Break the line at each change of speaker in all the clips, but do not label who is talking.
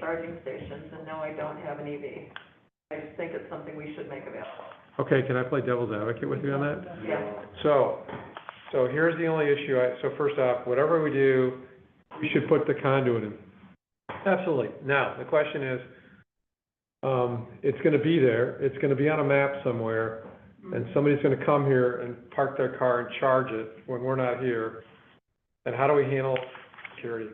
charging stations, and no, I don't have an EV. I just think it's something we should make available.
Okay, can I play devil's advocate with you on that?
Yeah.
So, so here's the only issue, I, so first off, whatever we do, we should put the conduit in. Absolutely. Now, the question is, um, it's gonna be there, it's gonna be on a map somewhere, and somebody's gonna come here and park their car and charge it when we're not here, and how do we handle security?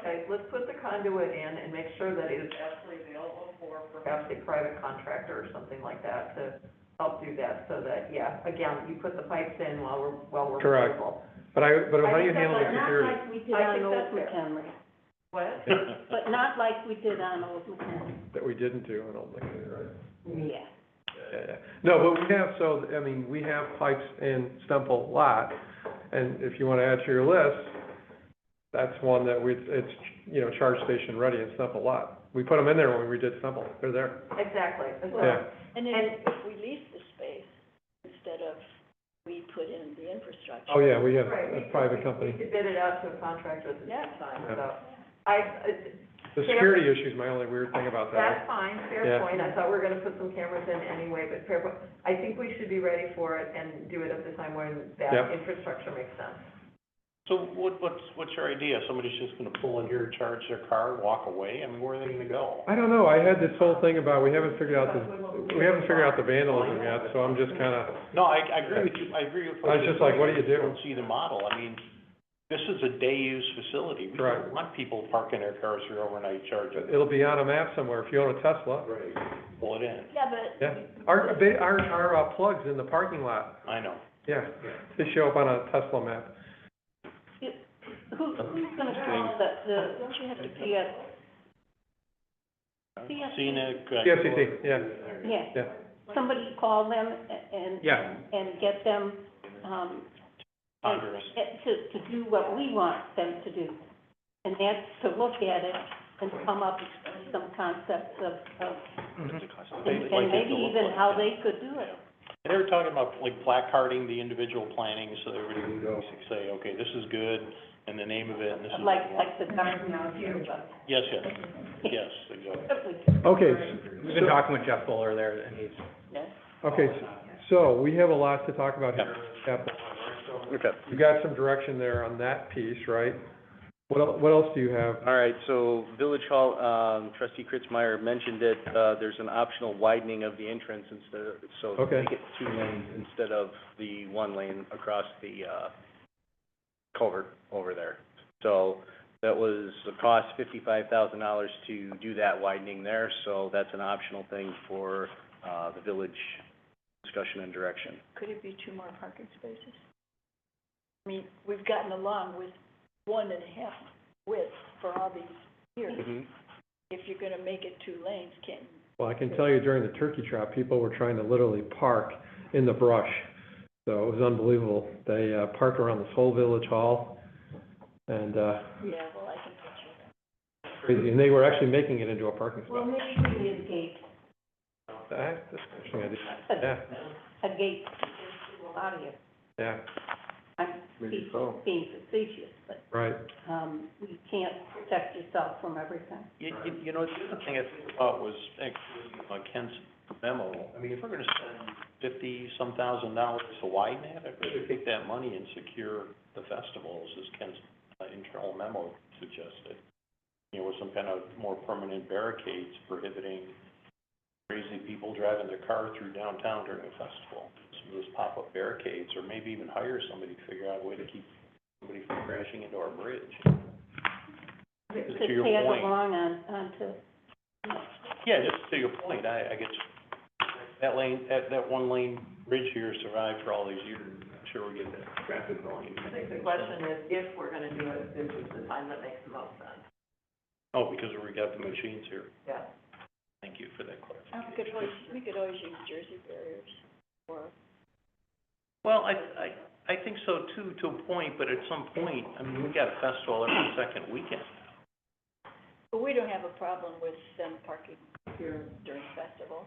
Okay, let's put the conduit in and make sure that it is actually available for perhaps a private contractor or something like that to help do that, so that, yeah, again, you put the pipes in while we're, while we're
Correct.
available.
But I, but how do you
I think
handle the
that's-
security?
Not like we did
I think
on Old
that's fair.
McHenry,
What?
but not like we did on Old McHenry.
That we didn't do, I don't think, right?
Yeah.
Yeah. No, but we have, so, I mean, we have pipes in Stemple lot, and if you wanna add to your list, that's one that we, it's, you know, charge station ready in Stemple lot. We put them in there when we redid Stemple, they're there.
Exactly, as well.
Yeah,
And
And-
if, if we lease the space instead of we put in the infrastructure.
oh, yeah, we have
Right, we
a
could-
private
We
company.
could bid it out to a contractor at the
Yeah.
same time,
Yeah.
so. I, it-
The security issue's my only weird thing about that.
that's fine,
Yeah.
fair point, I thought we were gonna put some cameras in anyway, but fair point. I think we should be ready for it and do it at the time when
Yep.
that infrastructure makes sense.
So what, what's, what's your idea? Somebody's just gonna pull in here, charge their car, walk away? I mean, where are they gonna go?
I don't know, I had this whole thing about, we haven't figured out the, we haven't figured out the vandalism yet, so I'm just kinda,
No, I, I agree with you, I agree with.
I was just like, what do you do?
I don't see the model. I mean, this is a day-use facility. We
Correct.
don't want people parking their cars here overnight charging.
it'll be on a map somewhere, if you own a Tesla.
Pull it in.
Yeah, but.
Yeah, our, they, our, our uh, plugs in the parking lot,
I know.
Yeah, they show up on a Tesla map.
Who, who's gonna call the, the,
Don't you have to pay?
yeah,
CFC.
Scenic. uh,
CFCC, E yeah.
yeah.
Yeah.
Somebody call them a- and.
Yeah.
And get them, um,
Congress.
get to, to do what we want them to do. And that's to look at it and come up with some concepts of, of,
They
and
like
and
it
maybe
to look
even
like.
how they could do it.
They were talking about like placarding the individual planning, so everybody would basically say, okay, this is good, and the name of it, and this is.
Like, like the garden out here, but.
Yes, yes, yes, exactly.
Okay,
We've been talking with Jeff Fuller there, and he's.
okay, so we have a lot to talk about here. Capital.
Okay,
You got some direction there on that piece, right? What, el- what else do you have?
all right, so Village Hall, um, trustee Kritzmeyer mentioned that, uh, there's an optional widening of the entrance instead of, so
Okay.
make it two lanes instead of the one lane across the, uh, culvert over there. So that was, the cost fifty-five thousand dollars to do that widening there, so that's an optional thing for, uh, the village discussion and direction.
Could it be two more parking spaces? I mean, we've gotten along with one and a half width for all these years. If you're gonna make it two lanes, can't,
Well, I can tell you during the turkey trot, people were trying to literally park in the brush. So it was unbelievable. They, uh, parked around this whole village hall and, uh,
yeah, well, I can picture that.
crazy, and they were actually making it into a parking
Well,
spot.
maybe we need a gate,
That- that's an interesting idea.
a,
Yeah,
a gate to a lot of you.
yeah,
I'm being being facetious, but,
right.
um, you can't protect yourself from everything.
You, you, you know, the other thing I think about was actually uh, Ken's memo. I mean, if we're gonna spend fifty-some thousand dollars to widen that, I'd rather take that money and secure the festivals, as Ken's uh, internal memo suggested. You know, with some kind of more permanent barricades prohibiting crazy people driving their car through downtown during a festival. Some of those pop-up barricades, or maybe even hire somebody to figure out a way to keep somebody from crashing into our bridge.
To
To your
tag
point.
along on, onto,
Yeah, just to your point, I, I get, you. that lane, that, that one lane bridge here survived for all these years, I'm sure we'll get that traffic volume.
I think the question is, if we're gonna do it, this is the time that makes the most sense,
Oh, because we got the machines here,
yeah.
thank you for that
We could
clarification.
always, Oh, we could always use Jersey barriers or
Well, I, I, I think so too, to a point, but at some point, I mean, we got a festival every second weekend.
But we don't have a problem with them parking here during festival,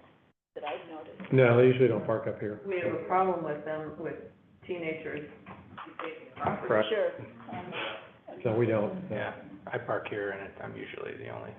that I've noticed.
No, they usually don't park up here.
We have a problem with them, with teenagers taking property.
Correct.
Sure.
No, we don't, no.
Yeah, I park here, and it- I'm usually the only